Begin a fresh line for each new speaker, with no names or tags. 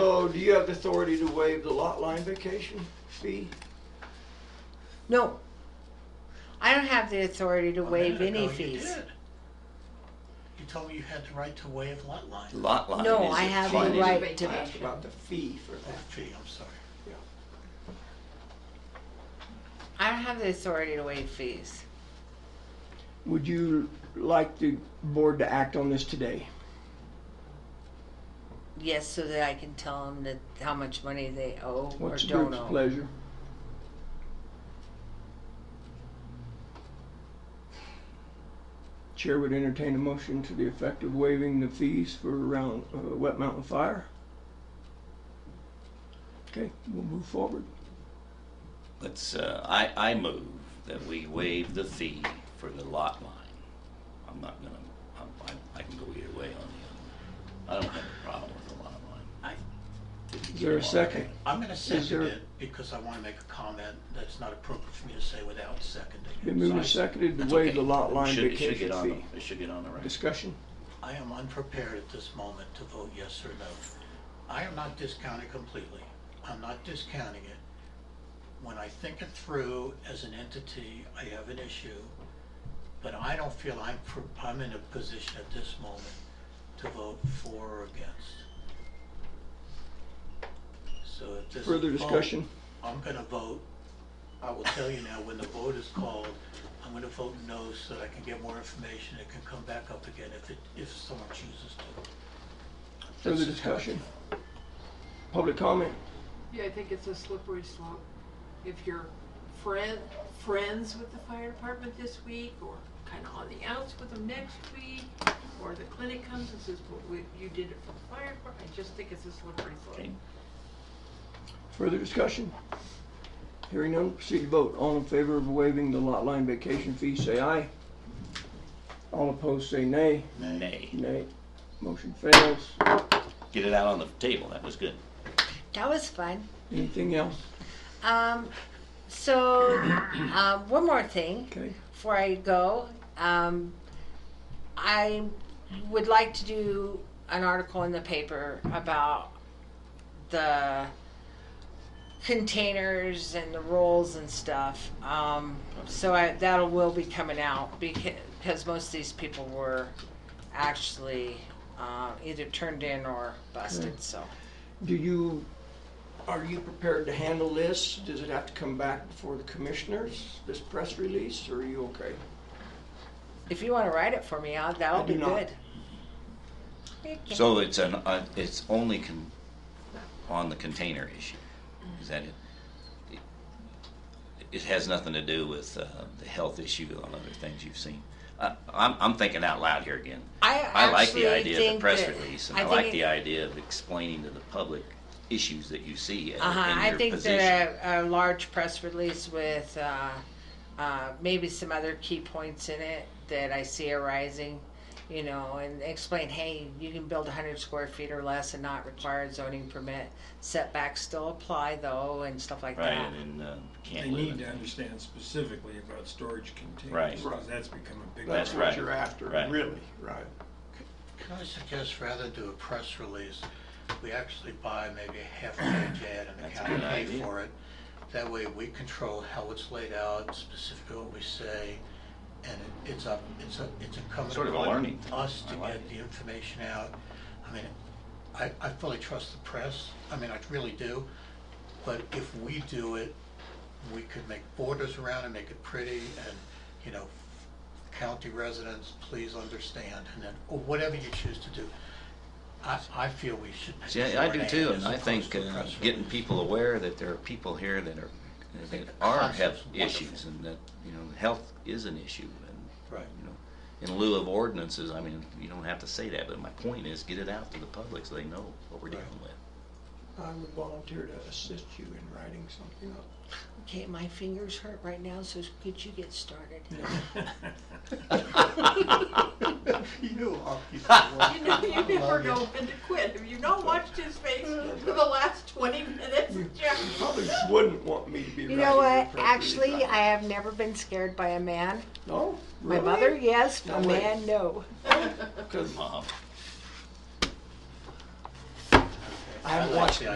So do you have the authority to waive the lot line vacation fee?
No. I don't have the authority to
A
waive
minute
any
ago, you
fees.
did. You told me you had the right to waive lot line
Lot line.
No,
is
I
a
have
fine.
the right
I
to,
asked about the fee for
Oh,
that.
fee, I'm sorry.
I don't have the authority to waive fees.
Would you like the board to act on this today?
Yes, so that I can tell them that, how much money they owe or
What's the
don't
group's
owe.
pleasure? Chair would entertain a motion to the effect of waiving the fees for around uh, Wet Mountain Fire. Okay, we'll move forward.
Let's, uh, I, I move that we waive the fee for the lot line. I'm not gonna, I'm, I, I can go either way on the, other. I don't have a problem with the lot line.
Is there a second?
I'm gonna second
there-
it because I wanna make a comment that's not appropriate for me to say without seconding.
Been moved and
So
seconded to
That's
waive
okay.
the lot line
It should- it should
vacation
get on
fee.
the- It should get on the record.
Discussion?
I am unprepared at this moment to vote yes or no. I am not discounting completely. I'm not discounting it. When I think it through as an entity, I have an issue, but I don't feel I'm, pro- I'm in a position at this moment to vote for or against. So if this.
Further
vote-
discussion?
I'm gonna vote, I will tell you now, when the vote is called, I'm gonna vote no so that I can get more information, it can come back up again if it, if someone chooses to.
Further
That's just how I
discussion?
feel.
Public comment?
Yeah, I think it's a slippery slope. If you're friend, friends with the fire department this week, or kind of on the outs with them next week, or the clinic comes and says, well, we, you did it for the fire department, I just think it's a slippery slope.
Okay.
Further discussion? Hearing none, proceed to vote. All in favor of waiving the lot line vacation fee, say aye. All opposed, say nay.
Nay.
Nay. Motion fails.
Get it out on the table, that was good.
That was fun.
Anything else?
Um, so, um, one more thing.
Okay.
before I go, um, I would like to do an article in the paper about the containers and the rolls and stuff. Um, so I, that'll will be coming out because, because most of these people were actually uh, either turned in or busted. So
Do you, are you prepared to handle this? Does it have to come back before the commissioners, this press release, or are you okay?
if you want to write it for me, I'll, that'll
I do
be
not.
good.
So it's an, uh, it's only con, on the container issue, is that it? It has nothing to do with, uh, the health issue on other things you've seen. I, I'm, I'm thinking out loud here again.
I,
I like
actually
the idea of the
think
press
that-
release, and
I
I
think
like
it-
the idea of explaining to the public issues that you see in
Uh-huh.
in
I
your
think
position.
that a, a large press release with uh, uh, maybe some other key points in it that I see arising, you know, and explain, hey, you can build 100 square feet or less and not require a zoning permit. Setbacks still apply though, and stuff like
Right,
that.
and, uh, can't
They
live
need
in-
to understand specifically about storage containers.
Right.
Because that's become a big.
That's
That's
problem.
right.
what you're after,
Right.
really, right?
Can I suggest rather do a press release, we actually buy maybe a half page ad and the
That's a
county
good
pay
idea.
for it. That way we control how it's laid out, specifically what we say, and it- it's up, it's a, it's incumbent
Sort of a learning
upon
thing.
us
I
to
like
get
it.
the information out. I mean, I, I fully trust the press, I mean, I really do, but if we do it, we could make borders around and make it pretty and, you know, county residents, please understand, and then, or whatever you choose to do. I, I feel we should. pay
See, I I
for
do
an
too,
ad
and
as
I
opposed
think
to a
uh,
press
getting
release.
people aware that there are people here that are, that
think the
are, have
concept's wonderful.
issues, and that, you know, health is an issue, and,
Right.
you know, in lieu of ordinances, I mean, you don't have to say that, but my point is, get it out to the public so they know what we're
Right.
dealing with.
I would volunteer to assist you in writing something up.
Okay, my fingers hurt right now, so could you get started?
You know, I'll-
You know,
I
you never
love
know
it.
when to quit. Have you not watched his face for the last twenty minutes, Jack?
Probably wouldn't want me to be
You
writing.
know what?
appropriate
Actually,
document.
I have never been scared by a man.
No,
My
really?
mother, yes.
No
a
way.
man, no.
'Cause
Mom.
I haven't
like
watched
the